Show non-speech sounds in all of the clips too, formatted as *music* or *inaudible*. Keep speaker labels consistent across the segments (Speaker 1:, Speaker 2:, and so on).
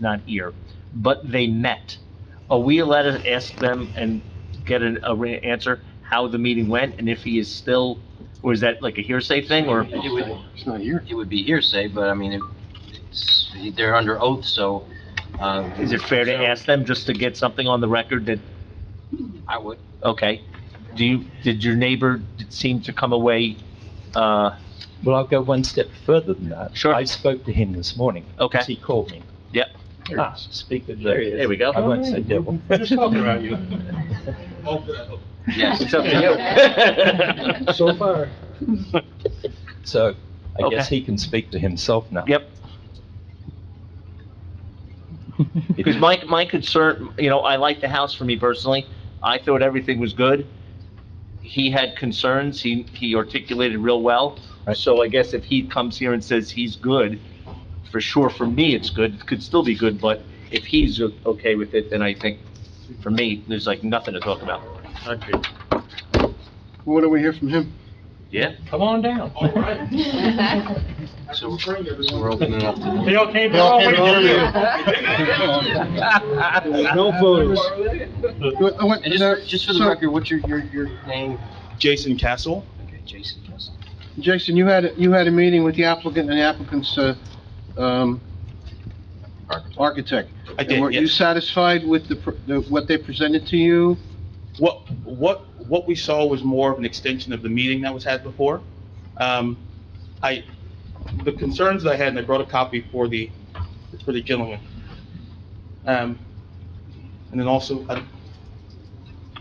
Speaker 1: not here, but they met. Are we allowed to ask them and get an, a re- answer how the meeting went and if he is still, or is that like a hearsay thing or?
Speaker 2: It would,
Speaker 3: It's not here.
Speaker 2: it would be hearsay, but I mean, it- it's, they're under oath, so, uh.
Speaker 1: Is it fair to
Speaker 2: so
Speaker 1: ask them just to get something on the record that,
Speaker 2: I would,
Speaker 1: okay, do you, did your neighbor seem to come away, uh,
Speaker 4: Well, I'll go one step further than that.
Speaker 1: Sure.
Speaker 4: I spoke to him this morning.
Speaker 1: Okay.
Speaker 4: He called me.
Speaker 1: Yep. Oh,
Speaker 4: Ah, speak with the...
Speaker 1: there we
Speaker 4: I
Speaker 1: go.
Speaker 4: won't say devil.
Speaker 3: Just talking about you.
Speaker 2: yes.
Speaker 1: It's up to *laughs* you.
Speaker 3: So far.
Speaker 4: So I guess
Speaker 1: Okay.
Speaker 4: he can speak to himself now.
Speaker 1: Yep. Because my, my concern, you know, I like the house for me personally. I thought everything was good. He had concerns, he, he articulated real well.
Speaker 4: Right.
Speaker 1: So I guess if he comes here and says he's good, for sure, for me, it's good, It could still be good, but if he's o- okay with it, then I think, for me, there's like nothing to talk about.
Speaker 3: What do we hear from him?
Speaker 1: Yeah?
Speaker 5: Come on down.
Speaker 2: So so we're opening up to the
Speaker 5: They all came,
Speaker 3: They all came
Speaker 5: No
Speaker 3: photos.
Speaker 2: And just, just for the record, what's your, your, your name?
Speaker 6: Jason Castle.
Speaker 2: Okay, Jason Kessler.
Speaker 3: Jason, you had, you had a meeting with the applicant and the applicant's, uh, um, architect.
Speaker 6: I
Speaker 3: And were
Speaker 6: did,
Speaker 3: you
Speaker 6: yes.
Speaker 3: satisfied with the, pr- the, what they presented to you?
Speaker 6: What, what, what we saw was more of an extension of the meeting that was had before. Um, I, the concerns that I had, and I brought a copy for the, for the gentleman. Um, and then also, I-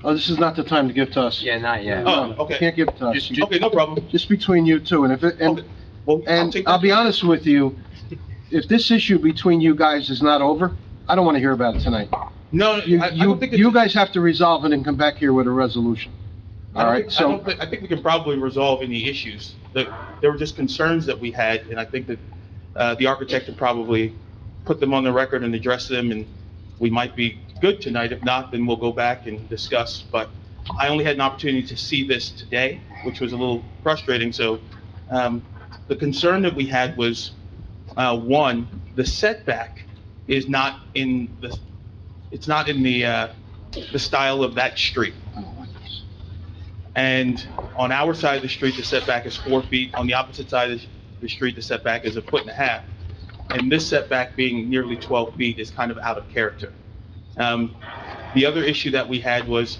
Speaker 3: Oh, this is not the time to give to us.
Speaker 2: Yeah, not yet.
Speaker 6: Oh,
Speaker 3: No,
Speaker 6: okay.
Speaker 3: Can't give to us.
Speaker 6: just- okay, no problem.
Speaker 3: Just between you two, and if, it- and,
Speaker 6: Okay. Well, I'll
Speaker 3: and
Speaker 6: take
Speaker 3: I'll
Speaker 6: that.
Speaker 3: be honest with you, if this issue between you guys is not over, I don't want to hear about it tonight.
Speaker 6: No, I,
Speaker 3: You,
Speaker 6: I
Speaker 3: you,
Speaker 6: don't think. it's-
Speaker 3: you guys have to resolve it and come back here with a resolution.
Speaker 6: I don't
Speaker 3: All right,
Speaker 6: think- I
Speaker 3: so-
Speaker 6: don't think- I think we can probably resolve any issues. There, there were just concerns that we had, and I think that, uh, the architect could probably put them on the record and address them, and we might be good tonight. If not, then we'll go back and discuss. But I only had an opportunity to see this today, which was a little frustrating, so, um, the concern that we had was, uh, one, the setback is not in the, it's not in the, uh, the style of that street. And on our side of the street, the setback is four feet. On the opposite side of the street, the setback is a foot and a half. And this setback being nearly 12 feet is kind of out of character. Um, The other issue that we had was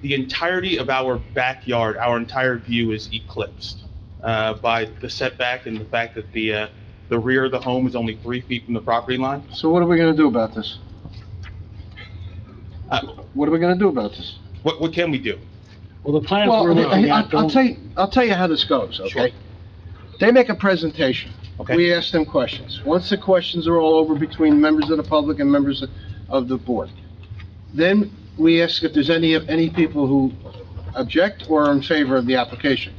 Speaker 6: the entirety of our backyard, our entire view is eclipsed uh, by the setback and the fact that the, uh, the rear of the home is only three feet from the property line.
Speaker 3: So what are we gonna do about this?
Speaker 6: Uh,
Speaker 3: What are we gonna do about this?
Speaker 6: What, what can we do?
Speaker 5: Well, the plans
Speaker 3: Well,
Speaker 5: we're looking
Speaker 3: I- I-
Speaker 5: at
Speaker 3: I'll
Speaker 5: don't,
Speaker 3: tell you, I'll tell you how this goes,
Speaker 6: Sure.
Speaker 3: okay? They make a presentation.
Speaker 6: Okay.
Speaker 3: We ask them questions. Once the questions are all over between members of the public and members of the board, then we ask if there's any, any people who object or are in favor of the application.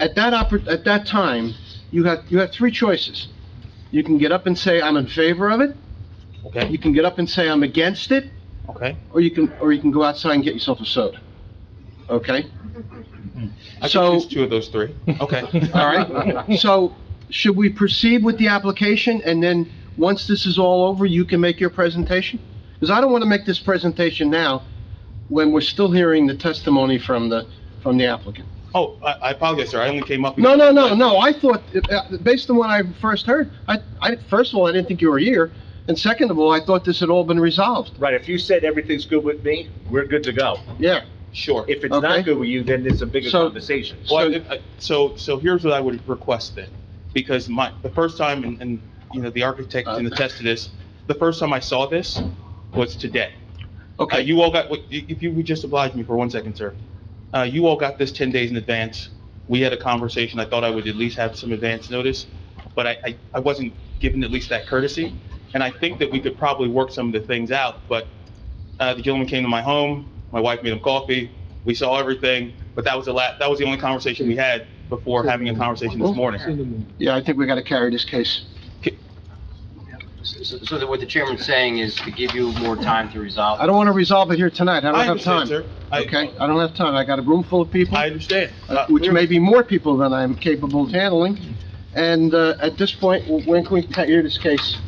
Speaker 3: At that oppor, at that time, you have, you have three choices. You can get up and say, I'm in favor of it,
Speaker 6: Okay,
Speaker 3: you can get up and say, I'm against it,
Speaker 6: okay.
Speaker 3: or you can, or you can go outside and get yourself a soda. Okay?
Speaker 6: I can
Speaker 3: So-
Speaker 6: choose two of those three. *laughs* Okay.
Speaker 3: All right, *laughs* so should we proceed with the application, and then, once this is all over, you can make your presentation? Because I don't want to make this presentation now, when we're still hearing the testimony from the, from the applicant.
Speaker 6: Oh, I I apologize, sir, I only came up.
Speaker 3: No, no, no, no, I thought, uh, based on what I first heard, I, I, first of all, I didn't think you were here, and second of all, I thought this had all been resolved,
Speaker 1: Right, if you said everything's good with me, we're good to go.
Speaker 3: yeah.
Speaker 6: Sure.
Speaker 1: If it's
Speaker 3: Okay.
Speaker 1: not good with you, then it's a bigger
Speaker 3: So-
Speaker 1: conversation.
Speaker 6: Well, if- I- So, so here's what I would request then, because my, the first time, and- and, you know, the architect
Speaker 3: Uh,
Speaker 6: can attest to this, the first time I saw this was today. Uh,
Speaker 3: Okay,
Speaker 6: You all got, what- if you would just oblige me for one second, sir. Uh, You all got this 10 days in advance. We had a conversation, I thought I would at least have some advance notice, but I, I- I wasn't given at least that courtesy. And I think that we could probably work some of the things out, but uh, the gentleman came to my home, my wife made him coffee, we saw everything, but that was the la, that was the only conversation we had before having a conversation this morning.
Speaker 3: yeah, I think we got to carry this case.
Speaker 2: So, so that what the chairman's saying is to give you more time to resolve.
Speaker 3: I don't want to resolve it here tonight, I
Speaker 6: I
Speaker 3: don't have
Speaker 6: understand,
Speaker 3: time.
Speaker 6: sir. I-
Speaker 3: Okay, I don't have time, I got a room full of people.
Speaker 6: I uh, understand.
Speaker 3: Uh, which may be more people than I'm capable of handling, And uh, at this point, when can we hear this case?